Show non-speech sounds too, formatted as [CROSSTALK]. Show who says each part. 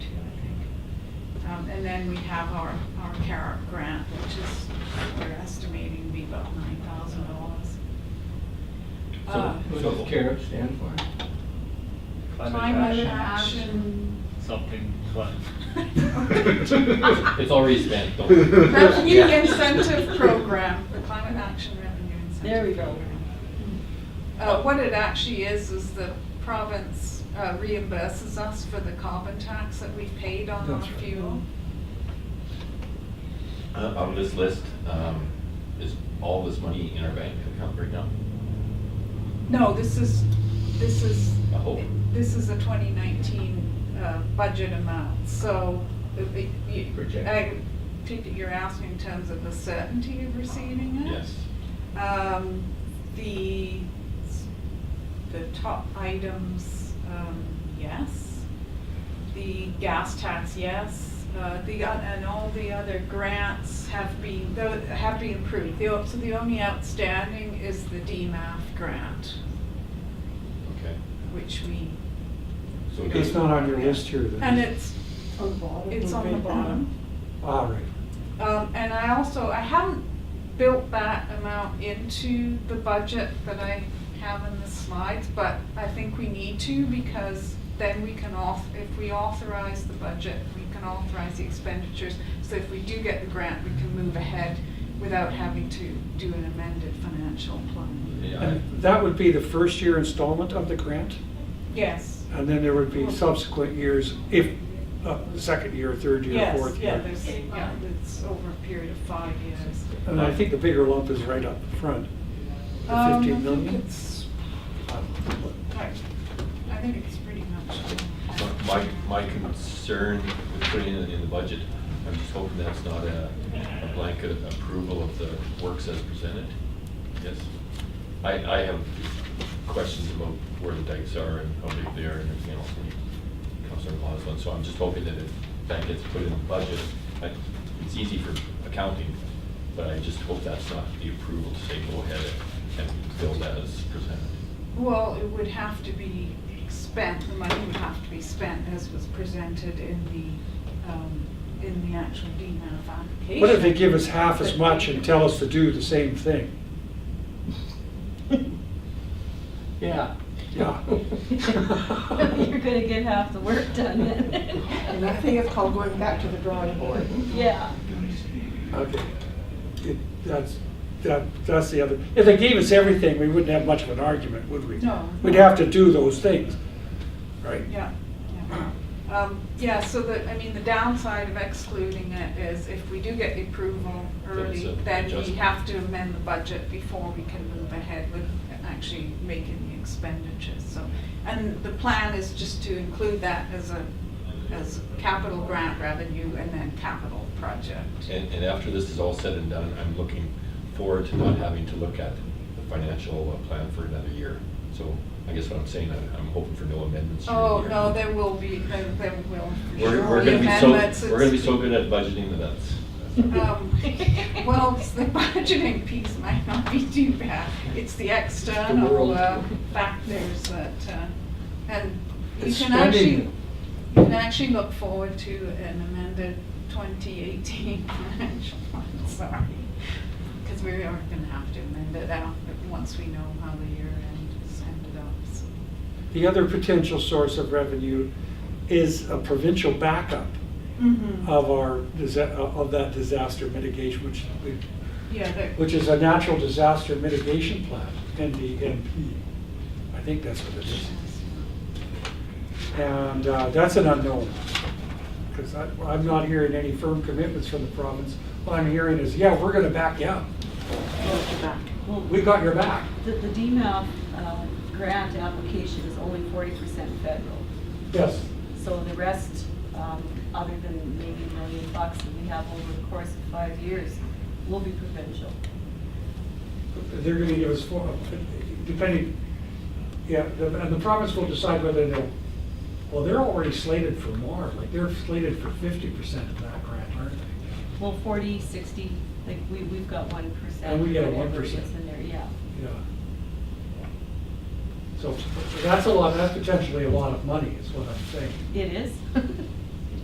Speaker 1: Um, and then we have our, our CARAT grant, which is, we're estimating to be about nine thousand dollars. Uh,
Speaker 2: So
Speaker 3: Uh,
Speaker 2: what does CARE stand for?
Speaker 1: Climate action,
Speaker 4: Something fun.
Speaker 5: [LAUGHS]
Speaker 2: It's already spent, don't worry.
Speaker 1: revenue
Speaker 5: [LAUGHS]
Speaker 1: incentive program, the climate action revenue incentive.
Speaker 5: There we go.
Speaker 1: program. Uh, what it actually is, is the province uh, reimburses us for the carbon tax that we paid on our
Speaker 2: That's right.
Speaker 1: fuel.
Speaker 6: Uh, On this list, um, is all this money in our bank account right now?
Speaker 1: No, this is, this is,
Speaker 6: I hope.
Speaker 1: this is a 2019 uh, budget amount, so it- it- you-
Speaker 2: Project.
Speaker 1: I think that you're asking in terms of the certainty of receiving it?
Speaker 6: Yes.
Speaker 1: Um, The, the top items, um, yes. The gas tax, yes. Uh, The, o- and all the other grants have been, tho- have been approved. The o- So the only outstanding is the DMAF grant,
Speaker 6: Okay.
Speaker 1: which we,
Speaker 6: So we
Speaker 3: It's
Speaker 6: got-
Speaker 3: not on your list here then?
Speaker 1: and it's,
Speaker 5: On the bottom.
Speaker 1: it's on the
Speaker 5: Right
Speaker 1: bottom.
Speaker 3: All right.
Speaker 1: Um, and I also, I haven't built that amount into the budget that I have in the slides, but I think we need to because then we can auth, if we authorize the budget, we can authorize the expenditures. So if we do get the grant, we can move ahead without having to do an amended financial plan.
Speaker 6: Yeah,
Speaker 3: And that would be the first year installment of the grant?
Speaker 1: Yes.
Speaker 3: And then there would be subsequent years, if, uh, second year, third year,
Speaker 1: Yes,
Speaker 3: fourth
Speaker 1: yeah,
Speaker 3: year?
Speaker 1: there's, yeah, it's over a period of five years.
Speaker 3: And I think the bigger lump is right up front, the
Speaker 1: Um, I
Speaker 3: 15
Speaker 1: think
Speaker 3: million?
Speaker 1: it's-
Speaker 3: Uh,
Speaker 1: I I think it's pretty much.
Speaker 6: I- My, my concern with putting it in the budget, I'm just hoping that's not a a blanket approval of the works as presented. Yes. I, I have questions about where the dikes are and how big they are and everything else. and Councilor Law's one, so I'm just hoping that if that gets put in the budget, I- it's easy for accounting, but I just hope that's not the approval to say go ahead and build as presented.
Speaker 1: Well, it would have to be spent, the money would have to be spent as was presented in the, um, in the actual DMAF application.
Speaker 3: What if they give us half as much and tell us to do the
Speaker 6: [LAUGHS]
Speaker 3: same thing?
Speaker 2: Yeah.
Speaker 3: Yeah.
Speaker 5: there. [LAUGHS] You're gonna get half the work done then. [LAUGHS]
Speaker 7: And I think it's called going back to the drawing board.
Speaker 5: Yeah.
Speaker 3: Okay. It- That's, that, that's the other, if they gave us everything, we wouldn't have much of an argument, would we?
Speaker 1: No.
Speaker 3: We'd have to do those things, right?
Speaker 1: Yeah, yeah. Um, Yeah, so the, I mean, the downside of excluding it is if we do get the approval early,
Speaker 6: Then it's a
Speaker 1: then we
Speaker 6: adjustment.
Speaker 1: have to amend the budget before we can move ahead with actually making the expenditures, so. And the plan is just to include that as a, as capital grant revenue and then capital project.
Speaker 6: And, and after this is all said and done, I'm looking forward to not having to look at the financial uh, plan for another year. So I guess what I'm saying, I'm, I'm hoping for no amendments. during the
Speaker 1: Oh,
Speaker 6: year.
Speaker 1: no, there will be, there there will. for
Speaker 6: We're,
Speaker 1: sure
Speaker 6: we're gonna be
Speaker 1: amendments.
Speaker 6: so, we're gonna be so good at budgeting that that's.
Speaker 1: Um, Well, it's the [LAUGHS] budgeting piece might not be too bad. It's the external
Speaker 2: world.
Speaker 1: uh, factors that, uh, and you
Speaker 3: It's
Speaker 1: can
Speaker 3: spending.
Speaker 1: actually, you can actually look forward to an amended 2018 [LAUGHS] financial plan, sorry. Because we are going to have to amend it out once we know how the year end is ended up. so.
Speaker 3: The other potential source of revenue is a provincial backup of our, disa- of that disaster mitigation, which, we-
Speaker 1: Yeah, that-
Speaker 3: which is a natural disaster mitigation plan, NDMP. I think that's what it is. And uh, that's an unknown, because I'm not hearing any firm commitments from the province. What I'm hearing is, yeah, we're going to back you up.
Speaker 5: Well,
Speaker 3: We got your back.
Speaker 5: The, the DMAP, uh, grant application is only forty percent federal.
Speaker 3: Yes.
Speaker 5: So the rest, um, other than maybe a million bucks that we have over the course of five years, will be provincial.
Speaker 3: They're going to give us four, depending, yeah, the- and the province will decide whether they'll, well, they're already slated for more, like they're slated for fifty percent of that grant, aren't they?
Speaker 5: Well, forty, sixty, like, we, we've got one percent.
Speaker 3: And we get a
Speaker 5: whatever it
Speaker 3: 1%.
Speaker 5: is in there, yeah.
Speaker 3: Yeah. So that's a lot, that's potentially a lot of money, is what I'm saying.
Speaker 5: It is. [LAUGHS]